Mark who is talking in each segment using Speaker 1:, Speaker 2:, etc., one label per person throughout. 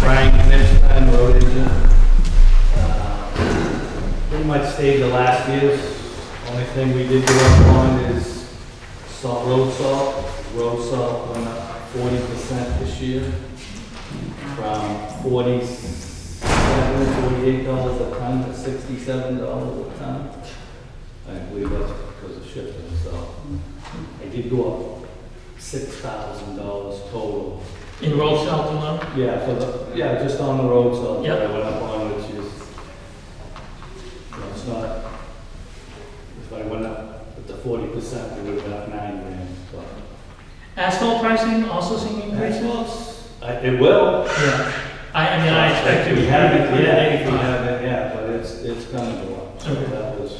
Speaker 1: Brian, next time road agent. Uh, Pretty much stayed the last year's. Only thing we did go up on is salt, road salt. Road salt went up forty percent this year. From forty-seven, forty-eight dollars a ton to sixty-seven dollars a ton. I believe that's because of shipping, so. I did go up six thousand dollars total
Speaker 2: In road salt alone?
Speaker 1: yeah, for the, yeah, just on the road, so
Speaker 2: Yep.
Speaker 1: I went up on, which is, you know, it's not, if I went up with the forty percent, it would have been up nine grand, but.
Speaker 2: Asphalt pricing also seeing increase?
Speaker 1: I, it will.
Speaker 2: Yeah. I, I mean, I expect it.
Speaker 1: We haven't, yeah, we
Speaker 2: 185.
Speaker 1: haven't, yeah, but it's, it's gonna go up, so
Speaker 2: Okay.
Speaker 1: that was,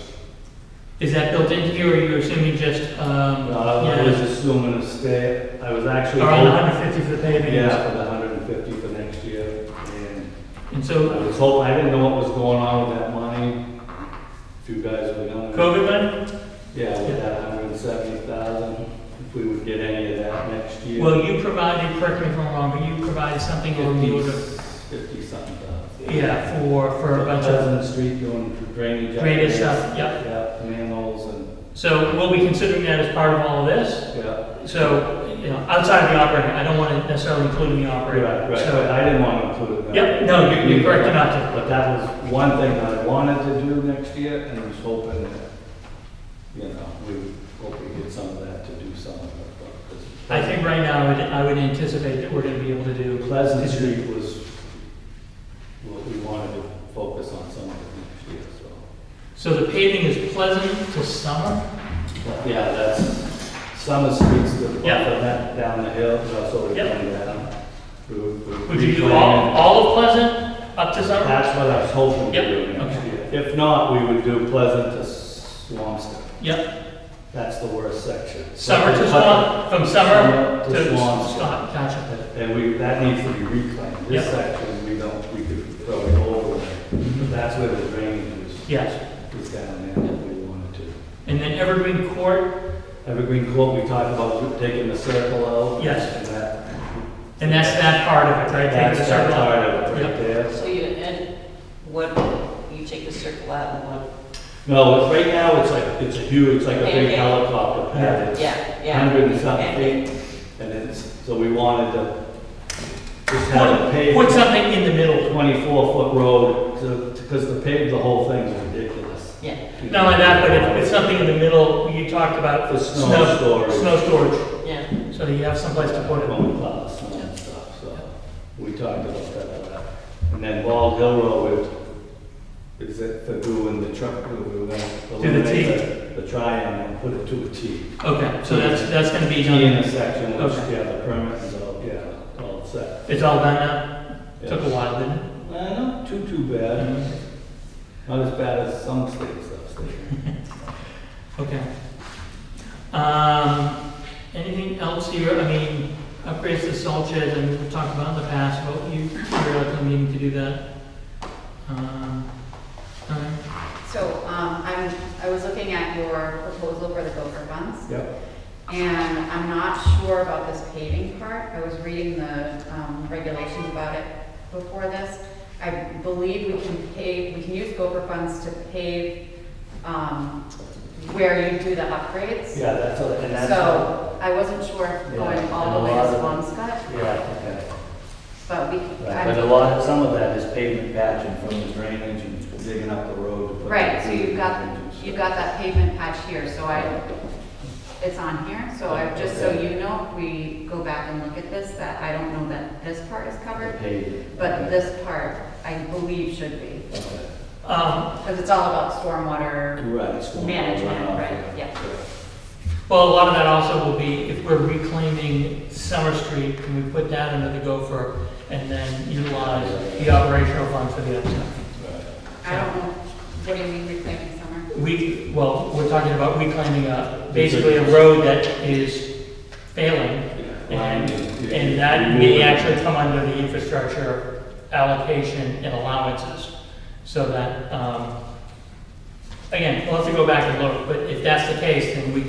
Speaker 2: Is that built into you, or you're assuming just, um?
Speaker 1: no, I
Speaker 2: yeah,
Speaker 1: Uh, was assuming a stay, I was actually.
Speaker 2: Around
Speaker 1: hoping-
Speaker 2: hundred fifty for the paving?
Speaker 1: Yeah, for the hundred and fifty for next year, and
Speaker 2: And
Speaker 1: I
Speaker 2: so,
Speaker 1: was hoping, I didn't know what was going on with that money, if you guys were gonna.
Speaker 2: COVID money?
Speaker 1: Yeah, with that hundred and seventy thousand, if we would get any of that next year.
Speaker 2: Well, you provided, correct me if I'm wrong, but you provided something on the order,
Speaker 1: Fifty something thousand.
Speaker 2: yeah, for, for a bunch of
Speaker 1: Pleasant Street doing drainage.
Speaker 2: Drainage
Speaker 1: upgrades.
Speaker 2: stuff, yep.
Speaker 1: Yeah, manholes and,
Speaker 2: So we'll be considering that as part of all of this.
Speaker 1: yeah.
Speaker 2: So, you know, outside of the operating, I don't want to necessarily include the operating.
Speaker 1: Right, right, but
Speaker 2: So,
Speaker 1: I didn't want to include that.
Speaker 2: yep, no, you're, you're correct not to.
Speaker 1: But that was one thing that I wanted to do next year, and was hoping that, you know, we would hope we get some of that to do some of it. but- 'cause
Speaker 2: I think right now, I would- I would anticipate that we're going to be able to do,
Speaker 1: Pleasant Street was what we wanted to focus on some of it next year, so.
Speaker 2: so the paving is pleasant to summer?
Speaker 1: But Yeah, that's, Summer Street's the, buffer
Speaker 2: Yeah.
Speaker 1: that down the hill, that's what we're
Speaker 2: Yeah.
Speaker 1: going down. We were- we were
Speaker 2: Would you do all,
Speaker 1: replanning.
Speaker 2: all of Pleasant up to summer?
Speaker 1: That's what I was hoping
Speaker 2: Yep,
Speaker 1: to do next
Speaker 2: okay.
Speaker 1: year. If not, we would do Pleasant to Swampscott.
Speaker 2: Yep,
Speaker 1: That's the worst section.
Speaker 2: summer to
Speaker 1: But-
Speaker 2: Swan, from summer
Speaker 1: Summer to
Speaker 2: to
Speaker 1: Swan.
Speaker 2: Scott, gotcha.
Speaker 1: And we, that needs to be reclaimed. This
Speaker 2: Yeah.
Speaker 1: section, we don't, we could throw it over. But That's where the drainage is.
Speaker 2: Yes,
Speaker 1: is down there that we wanted to.
Speaker 2: and then Evergreen Court,
Speaker 1: Evergreen Court, we talked about taking the circle out.
Speaker 2: Yes.
Speaker 1: And that,
Speaker 2: and that's that part of it, right? Take
Speaker 1: that's
Speaker 2: the
Speaker 1: that
Speaker 2: circle out.
Speaker 1: part of it right there.
Speaker 3: So you add what, you take the circle out and what,
Speaker 1: No, it's- right now, it's like, it's a huge, it's like a big
Speaker 3: Yeah.
Speaker 1: helicopter pad. It's
Speaker 3: yeah, yeah.
Speaker 1: Hundred and something
Speaker 3: And-
Speaker 1: feet, and it's, so we wanted to just have a paved,
Speaker 2: Put something in the middle.
Speaker 1: twenty-four foot road, to, because the pave, the whole thing's ridiculous.
Speaker 3: Yeah,
Speaker 2: Not only that, but if it's something in the middle, you talked about.
Speaker 1: For snow storage.
Speaker 2: Snow storage,
Speaker 3: yeah.
Speaker 2: so you have someplace to put it.
Speaker 1: When we plow the snow and stuff, so we talked about that. And then Bald Hill Road, it- is it for doing the truck, we were gonna
Speaker 2: the
Speaker 1: eliminate the, the triangle and put it to a T.
Speaker 2: Okay, so that's, that's gonna
Speaker 1: T
Speaker 2: be done.
Speaker 1: intersection, which,
Speaker 2: Okay.
Speaker 1: yeah, the permit is all, yeah, all set.
Speaker 2: It's all done now? Took a
Speaker 1: Yes.
Speaker 2: while, didn't it?
Speaker 1: Uh, not too, too bad, not as bad as some states upstate.
Speaker 2: Okay. Um, anything else here? I mean, upgrades to salt shed, and we've talked about in the past, but you, you're likely needing to do that. Um, okay.
Speaker 4: So, um, I'm, I was looking at your proposal for the Gopher funds,
Speaker 1: Yep,
Speaker 4: and I'm not sure about this paving part. I was reading the, um, regulations about it before this. I believe we can pave, we can use Gopher funds to pave, um, where you do the upgrades.
Speaker 1: yeah, that's, all- and that's.
Speaker 4: So, I wasn't sure if going
Speaker 1: Yeah,
Speaker 4: all the way
Speaker 5: and a
Speaker 4: to
Speaker 5: lot
Speaker 4: Swampscott,
Speaker 1: Yeah, okay.
Speaker 4: but we,
Speaker 5: Right, But a
Speaker 4: I,
Speaker 5: lot, some of that is pavement patching from the drainage and
Speaker 1: Digging up the road. to put the
Speaker 4: right, so you've got,
Speaker 1: bridges.
Speaker 4: you've got that pavement patch here, so I, it's on here, so I, just so you know, if we go back and look at this, that I don't know that this part is
Speaker 5: the
Speaker 4: covered,
Speaker 5: pavement.
Speaker 4: but this part, I believe should be,
Speaker 5: Okay.
Speaker 2: Um,
Speaker 4: because it's all about stormwater.
Speaker 1: Right. it's going
Speaker 4: Management,
Speaker 1: runoff,
Speaker 4: right, yeah.
Speaker 2: well, a lot of that also will be, if we're reclaiming Summer Street, can we put that under the gopher and then utilize the operational funds for the other stuff?
Speaker 1: Right.
Speaker 4: I don't know, what do you mean reclaiming summer?
Speaker 2: We, well, we're talking about reclaiming a, basically a road that is failing And, and that may actually come under the infrastructure allocation and allowances, so that, um, again, we'll have to go back and look, but if that's the case, then we